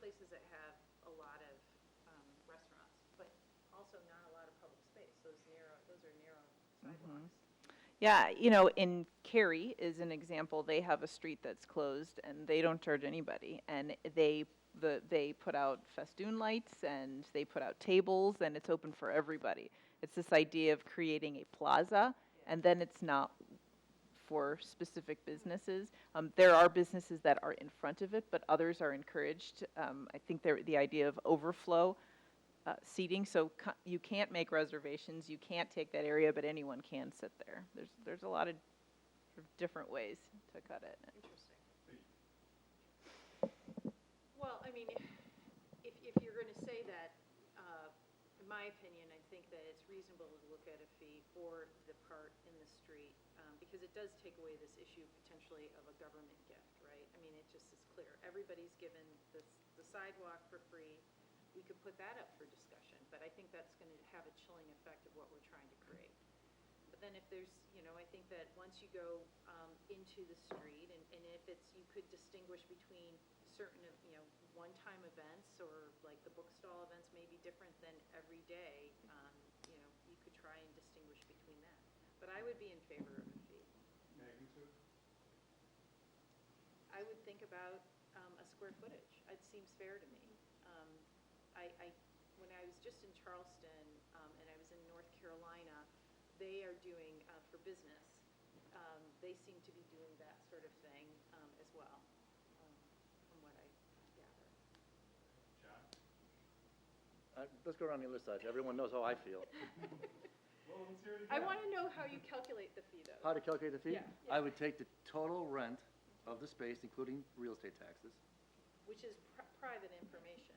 places that have a lot of um, restaurants, but also not a lot of public space, those narrow, those are narrow sidewalks. Yeah, you know, in Cary is an example, they have a street that's closed and they don't charge anybody. And they, the, they put out festoon lights and they put out tables and it's open for everybody. It's this idea of creating a plaza and then it's not for specific businesses. Um, there are businesses that are in front of it, but others are encouraged. Um, I think there, the idea of overflow, uh, seating, so co- you can't make reservations, you can't take that area, but anyone can sit there. There's, there's a lot of sort of different ways to cut it. Interesting. Well, I mean, if, if you're going to say that, uh, in my opinion, I think that it's reasonable to look at a fee for the part in the street, um, because it does take away this issue potentially of a government gift, right? I mean, it just is clear. Everybody's given the s- the sidewalk for free. We could put that up for discussion, but I think that's going to have a chilling effect of what we're trying to create. But then if there's, you know, I think that once you go um, into the street, and and if it's, you could distinguish between certain, of you know, one-time events, or like the bookstall events may be different than every day, um, you know, you could try and distinguish between that. But I would be in favor of a fee. Magnitude? I would think about um, a square footage. It seems fair to me. Um, I, I, when I was just in Charleston um, and I was in North Carolina, they are doing uh, for business. um, They seem to be doing that sort of thing um, as well, um, from what I gather. John? Uh, Let's go around the other side, everyone knows how I feel. Well, let's hear it I again. want to know how you calculate the fee, How though. to calculate the fee? Yeah. I would take the total rent of the space, including real estate taxes. Which is pri- private information.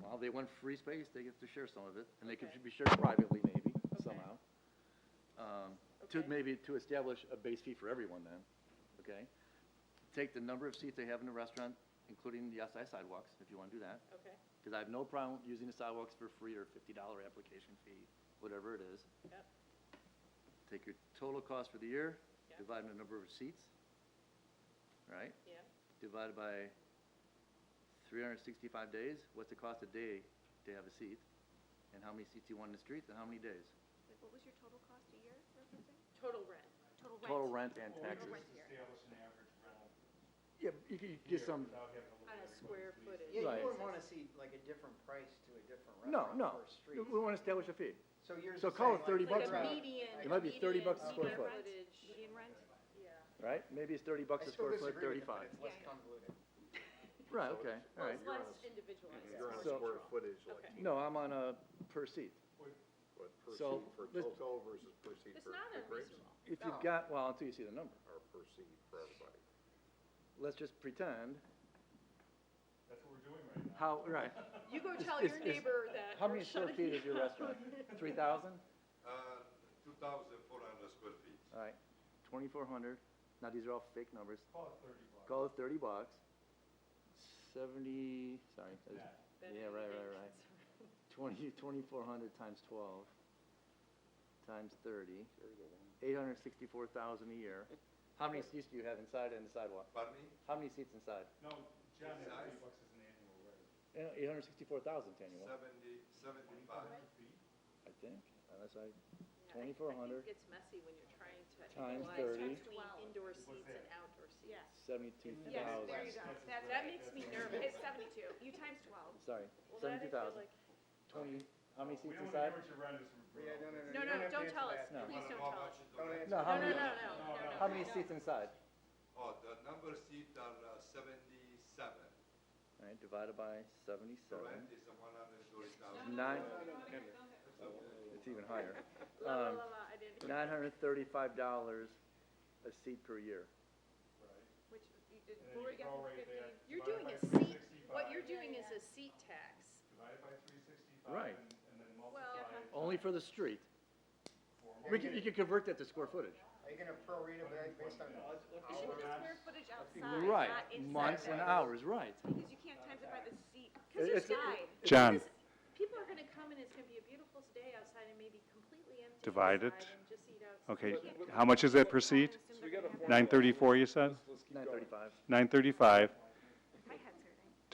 Well, they want free space, they get to share some of it, and they Okay. could be shared privately maybe, Okay. somehow. Um, To, Okay. maybe to establish a base fee for everyone then, okay? Take the number of seats they have in the restaurant, including the outside sidewalks, if you want to do that. Okay, Because I have no problem using the sidewalks for free or fifty dollar application fee, whatever it is. yep, Take your total cost for the year, Yeah. divide by the number of seats, right? yep. Divided by three hundred and sixty-five days, what's the cost a day to have a seat? And how many seats you want in the streets and how many days? Wait, what was your total cost a year, referencing? Total rent. Total rent? Total rent and Or we taxes. just establish an average rental Yeah, you could here get some, without having to look On a at square everybody's footage. Yeah, Right. you wouldn't want to see like a different price to a different no, restaurant no, per street. we want to establish a fee. So yours so is call it 30 saying, Like a bucks like, an hour. median. It might be 30 bucks median a square square foot. footage. Median rent? Yeah. Right, maybe it's thirty bucks I a still square foot, disagree with it, but thirty-five. it's less Yeah. convoluted. Right, okay, all Well, right. it's less individualized. If You're on it's more So- square general. footage, like, Okay. No, I'm on a per seat. What- what, per So, seat for let's- total versus per seat It's for not for grapes? unreasonable. If you've No. got, well, until you see the number. Or per seat for everybody? Let's just pretend That's what we're doing right now. how, right. You go tell It's- your it's- neighbor that. How you're many square shutting feet is your down. restaurant? Three thousand? Uh, 2,400 square feet. All right, twenty-four hundred. Now, these are all fake numbers. Call it thirty bucks. Call it thirty bucks. Seventy, sorry. that is- That Yeah, right, right, indicates- right. Twenty, twenty-four hundred times twelve, times thirty, eight hundred sixty-four thousand a year. How many seats do you have inside and the sidewalk? Pardon me? How many seats inside? No, John, that thirty Size? bucks is an annual rate. Eight hundred sixty-four thousand annual, 70, 75. Twenty-five feet? I think, unless I, Yeah, I- twenty-four I think hundred, it gets messy when you're trying to. Times equalize 30. Between indoor seats and that? outdoor seats. Yeah. seventy-two thousand. Yes, there you go. That's- That's That right. makes me nervous. It's seventy-two, you times twelve. Sorry, Well, that I feel seventy-two thousand. like- Twenty, how many We seats don't want to hear inside? what your rent is from. Yeah, no, No, no, no. You no, have to don't answer tell us. that. No. Please don't How tell us. much is the Don't rent? answer No, how No, no, no, many, that. no, No, no, no. no. how many seats inside? Oh, the number seat are uh, 77. All right, divided by The seventy-seven, rent is 120,000. nine, uh, it's even higher. La, la, la, la, I didn't. Um, Nine hundred thirty-five dollars a seat per year. Right. Which you did, And then what were you you getting for prorate that. fifteen? You're doing a Divided by seat, what you're 365. doing is a seat tax. Divided by three sixty-five. Right. And and then Well- multiply. it Only for the street. for- We could, you could convert that to square footage. Are you going to prorate it like, based on? You should put the Hour and a square half. footage outside, not Right, inside. months and hours, right. Because you can't times it by the seat, because It's- it's uh, nine. Because People are gonna come and it's gonna be a beautiful day outside and maybe completely empty. Divide it. inside and just eat outside. Okay, You can't- how much is that per People seat? come and assume they're gonna have that. 934, you said? Nine thirty-five. 935.